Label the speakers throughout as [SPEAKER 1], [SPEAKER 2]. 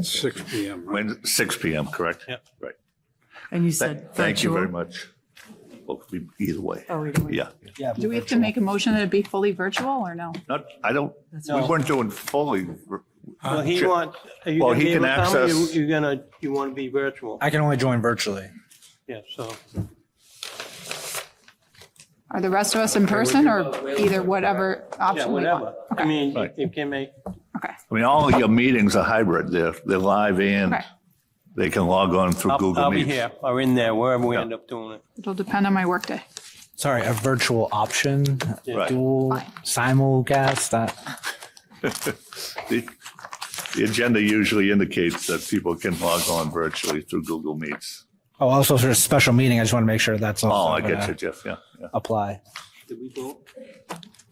[SPEAKER 1] Six P M, right?
[SPEAKER 2] When, six PM, correct?
[SPEAKER 3] Yep.
[SPEAKER 2] Right.
[SPEAKER 4] And you
[SPEAKER 2] Th-
[SPEAKER 4] said
[SPEAKER 2] Thank you very
[SPEAKER 4] virtual?
[SPEAKER 2] much. Well, we- either way,
[SPEAKER 4] Oh, either way.
[SPEAKER 2] yeah.
[SPEAKER 5] Do we have to make a motion that it be fully virtual or no?
[SPEAKER 2] Not, I don't, we
[SPEAKER 3] No.
[SPEAKER 2] weren't doing fully.
[SPEAKER 3] Well, he
[SPEAKER 2] Sure.
[SPEAKER 3] want, are you
[SPEAKER 2] Well,
[SPEAKER 3] gonna
[SPEAKER 2] he
[SPEAKER 3] be able
[SPEAKER 2] can
[SPEAKER 3] to come? You-
[SPEAKER 2] access-
[SPEAKER 3] You're gonna, you want to be virtual?
[SPEAKER 6] I can only join virtually.
[SPEAKER 3] Yeah, so.
[SPEAKER 5] Are the rest of us in person or either whatever
[SPEAKER 3] Yeah,
[SPEAKER 5] option we want?
[SPEAKER 3] whatever. I mean,
[SPEAKER 2] Right.
[SPEAKER 3] you can make,
[SPEAKER 5] Okay,
[SPEAKER 2] I mean, all of your meetings are hybrid. They're, they're live and
[SPEAKER 5] okay.
[SPEAKER 2] they can log on through
[SPEAKER 3] I'll
[SPEAKER 2] Google
[SPEAKER 3] I'll be
[SPEAKER 2] Meet.
[SPEAKER 3] here or in there, wherever we end up doing it.
[SPEAKER 5] It'll depend on my workday.
[SPEAKER 6] Sorry, a virtual option,
[SPEAKER 2] Right.
[SPEAKER 6] dual
[SPEAKER 5] Fine.
[SPEAKER 6] simulcast. That
[SPEAKER 2] The the agenda usually indicates that people can log on virtually through Google Meets.
[SPEAKER 6] oh, also sort of special meeting. I just want to make sure that's
[SPEAKER 2] Oh,
[SPEAKER 6] also
[SPEAKER 2] I get
[SPEAKER 6] gonna
[SPEAKER 2] you, Jeff, yeah, yeah.
[SPEAKER 6] Apply.
[SPEAKER 3] Did we go?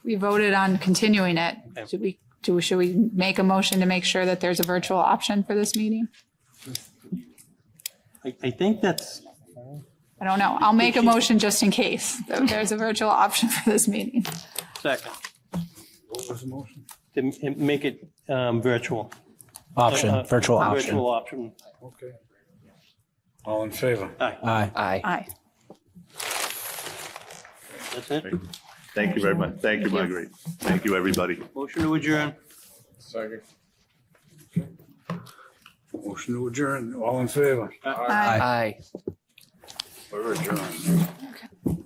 [SPEAKER 5] We voted on continuing it. Should we, do, should we make a motion to make sure that there's a virtual option for this meeting?
[SPEAKER 3] I, I think that's,
[SPEAKER 5] I don't know. I'll make a motion just in case that there's a virtual option for this meeting.
[SPEAKER 3] second,
[SPEAKER 1] What was the motion?
[SPEAKER 3] to m- make it um, virtual.
[SPEAKER 6] Option,
[SPEAKER 3] Uh,
[SPEAKER 6] virtual option.
[SPEAKER 3] Virtual option.
[SPEAKER 1] Okay. All in favor?
[SPEAKER 6] Aye.
[SPEAKER 4] Aye.
[SPEAKER 3] That's it.
[SPEAKER 2] Thank you very much. Thank you, Marguerite. Thank you, everybody.
[SPEAKER 3] Motion to adjourn.
[SPEAKER 1] Second. Motion to adjourn, all in favor?
[SPEAKER 5] Aye.
[SPEAKER 1] We're adjourned.